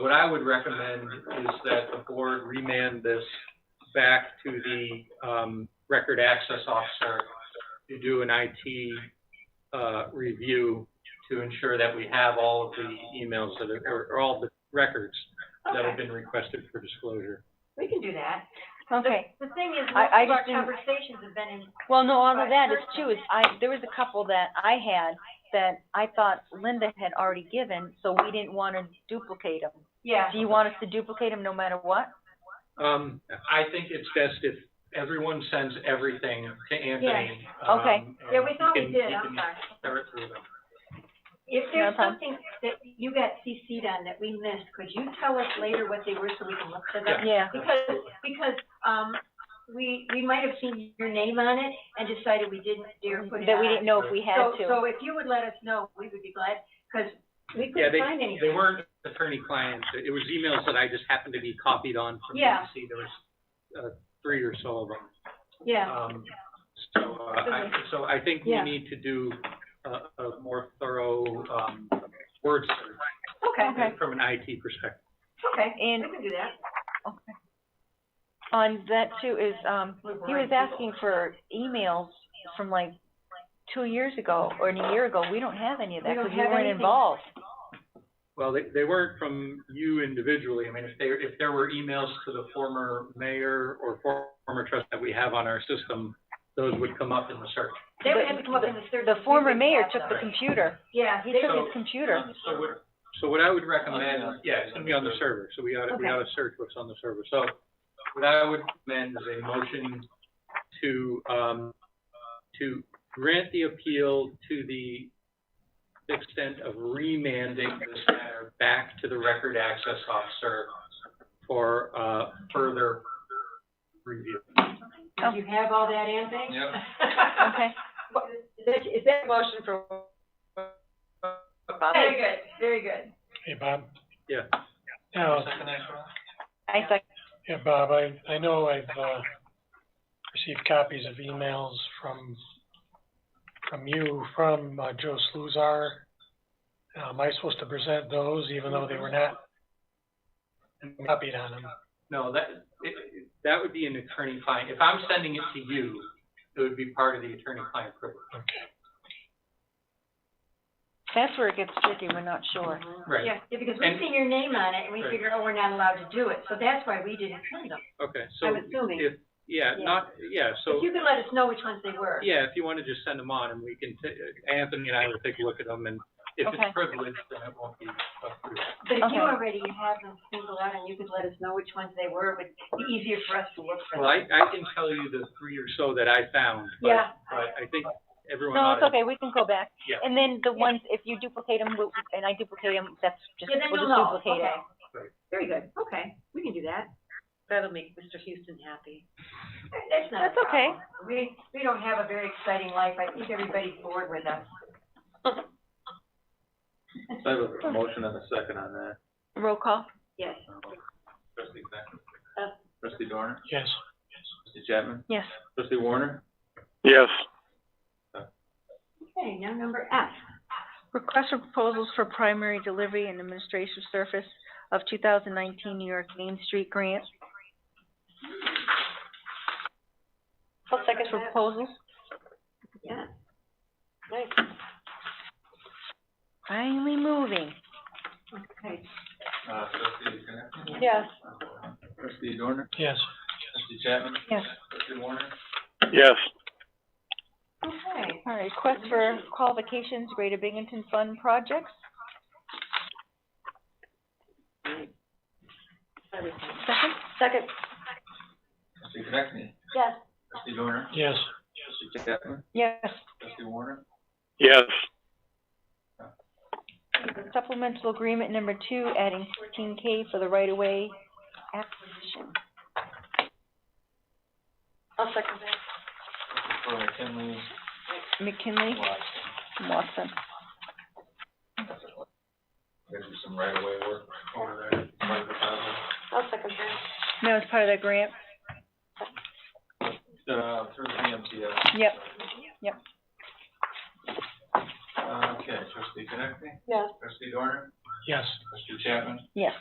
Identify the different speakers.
Speaker 1: what I would recommend is that the board remand this back to the, um, record access officer to do an IT, uh, review to ensure that we have all of the emails that are, or- or all the records that have
Speaker 2: Okay,
Speaker 1: been requested for disclosure.
Speaker 2: we can do that.
Speaker 3: Okay,
Speaker 2: The thing is, most
Speaker 3: I- I
Speaker 2: of our
Speaker 3: just didn't-
Speaker 2: conversations have been in,
Speaker 3: well, no, all of that is too, is I, there was a couple that I had that I thought Linda had already given, so we didn't wanna duplicate them.
Speaker 2: yeah,
Speaker 3: Do you want us to duplicate them no matter what?
Speaker 1: Um, I think it's best if everyone sends everything to Anthony.
Speaker 3: Yeah. Okay.
Speaker 1: um,
Speaker 2: yeah,
Speaker 1: and
Speaker 2: we
Speaker 1: he
Speaker 2: thought we
Speaker 1: can-
Speaker 2: did,
Speaker 1: he
Speaker 2: I'm
Speaker 1: can
Speaker 2: sorry.
Speaker 1: tear it through them.
Speaker 2: If there's
Speaker 3: No problem.
Speaker 2: something that you got CC'd on that we missed, could you tell us later what they were so we can look for them?
Speaker 3: Yeah,
Speaker 2: Because, because, um, we, we might have seen your name on it and decided we didn't dare put it
Speaker 3: Mm-hmm. that we
Speaker 2: on.
Speaker 3: didn't know if we had
Speaker 2: So,
Speaker 3: to.
Speaker 2: so if you would let us know, we would be glad, because we
Speaker 1: Yeah,
Speaker 2: couldn't
Speaker 1: they,
Speaker 2: find anything.
Speaker 1: they weren't attorney-client, it was emails that I just happened to be copied on from
Speaker 2: Yeah.
Speaker 1: DC, there was, uh, three or so of them.
Speaker 2: Yeah,
Speaker 1: Um, so, uh, I, so I think we
Speaker 2: Yeah.
Speaker 1: need to do a, a more thorough, um, word search
Speaker 2: okay,
Speaker 3: Okay.
Speaker 1: from an IT perspective.
Speaker 2: okay, we
Speaker 3: And
Speaker 2: can do that.
Speaker 3: on that too is, um, he was asking for emails from like two years ago or a year ago. We don't have any of
Speaker 2: We
Speaker 3: that
Speaker 2: don't
Speaker 3: because we
Speaker 2: have
Speaker 3: weren't
Speaker 2: anything.
Speaker 3: involved.
Speaker 1: Well, they, they weren't from you individually, I mean, if there, if there were emails to the former mayor or former trust that we have on our system, those would come up in the search.
Speaker 2: They would have to come up in the search.
Speaker 3: The former
Speaker 2: We
Speaker 3: mayor
Speaker 2: would
Speaker 3: took
Speaker 2: have
Speaker 3: the
Speaker 2: them.
Speaker 3: computer.
Speaker 2: Yeah,
Speaker 3: He
Speaker 2: they-
Speaker 3: took
Speaker 1: So-
Speaker 3: his computer.
Speaker 1: So what, so what I would recommend, yeah, it's gonna be on the uh, server, so we oughta, we
Speaker 2: Okay.
Speaker 1: oughta search what's on the server. So what I would recommend is a motion to, um, to grant the appeal to the extent of remanding this matter back to the record access officer for, uh, further review.
Speaker 2: Do you have all that, Anthony?
Speaker 1: Yep.
Speaker 3: Okay.
Speaker 4: Is that, is that a motion for? Bob?
Speaker 2: Very good, very good.
Speaker 5: Hey, Bob?
Speaker 1: Yeah.
Speaker 5: Now,
Speaker 3: I thought,
Speaker 5: yeah, Bob, I, I know I've, uh, received copies of emails from, from you, from, uh, Joe Sluzar. Now, Am I supposed to present those even though they were not copied on them?
Speaker 1: No, that, it, it- that would be an attorney-client, if I'm sending it to you, it would be part of the attorney-client privilege.
Speaker 5: Okay,
Speaker 3: that's where it gets tricky. We're not sure.
Speaker 1: Right,
Speaker 2: Yeah, yeah, because we've
Speaker 1: And-
Speaker 2: seen your name on it, and we
Speaker 1: Right.
Speaker 2: figured, oh, we're not allowed to do it, so that's why we didn't print them.
Speaker 1: okay, so.
Speaker 2: I'm assuming.
Speaker 1: If, yeah,
Speaker 2: Yeah.
Speaker 1: not, yeah, so,
Speaker 2: If you could let us know which ones they were.
Speaker 1: yeah, if you wanna just send them on and we can, ta- Anthony and I will take a look at them and if
Speaker 3: Okay.
Speaker 1: it's privileged, then it won't be approved.
Speaker 2: But if you
Speaker 3: Okay.
Speaker 2: already have them singled out and you could let us know which ones they were, it would be easier for us to look for
Speaker 1: Well,
Speaker 2: them.
Speaker 1: I, I can tell you the three or so that I found, but,
Speaker 2: Yeah,
Speaker 1: but I think everyone
Speaker 3: No,
Speaker 1: ought
Speaker 3: it's okay. We can go back.
Speaker 1: Yeah.
Speaker 3: And then the ones, if you duplicate them, and I duplicate them, that's just,
Speaker 2: yeah, then
Speaker 3: we'll
Speaker 2: you'll
Speaker 3: just
Speaker 2: know,
Speaker 3: duplicate
Speaker 2: okay.
Speaker 3: it.
Speaker 2: Very good, okay, we can do that.
Speaker 4: That'll make Mr. Houston happy.
Speaker 2: That's not a
Speaker 3: That's okay.
Speaker 2: problem. We, we don't have a very exciting life, I think everybody's bored with us.
Speaker 6: So I have a motion and a second on that.
Speaker 3: Roll call.
Speaker 2: Yes,
Speaker 6: Trustee Connectney?
Speaker 2: Uh.
Speaker 6: Trustee Dorner?
Speaker 5: yes.
Speaker 6: Trustee Chapman?
Speaker 3: Yes.
Speaker 6: Trustee Warner?
Speaker 5: Yes.
Speaker 2: okay, now number F.
Speaker 3: Request for proposals for primary delivery and administrative service of two thousand nineteen New York Main Street grant.
Speaker 4: I'll second
Speaker 3: For
Speaker 4: that.
Speaker 3: Proposals.
Speaker 2: Yeah,
Speaker 4: Nice.
Speaker 3: Finally moving.
Speaker 2: okay.
Speaker 6: Uh, trustee Connectney?
Speaker 4: Yes.
Speaker 6: Trustee Dorner?
Speaker 5: Yes.
Speaker 6: Trustee Chapman?
Speaker 3: Yes.
Speaker 6: Trustee Warner?
Speaker 5: Yes.
Speaker 2: Okay,
Speaker 3: All right, request for qualifications, Greater Binghamton Fund projects. Second?
Speaker 4: Second,
Speaker 6: Trustee Connectney?
Speaker 4: yes.
Speaker 6: Trustee Dorner?
Speaker 5: Yes.
Speaker 6: Trustee Chapman?
Speaker 3: Yes.
Speaker 6: Trustee Warner?
Speaker 5: Yes.
Speaker 3: Supplemental agreement number two, adding fourteen K for the right-of-way acquisition.
Speaker 4: I'll second that.
Speaker 6: For McKinley,
Speaker 3: McKinley,
Speaker 6: Watson.
Speaker 3: Watson.
Speaker 6: There's some right away work over there. Right about
Speaker 4: I'll second that.
Speaker 3: No, it's part of the grant.
Speaker 6: it. Uh, through the BMTS.
Speaker 3: Yep. Yep.
Speaker 6: Uh, Okay, trustee Connectney?
Speaker 4: Yes.
Speaker 6: Trustee Dorner?
Speaker 5: Yes.
Speaker 6: Trustee Chapman?
Speaker 3: Yes.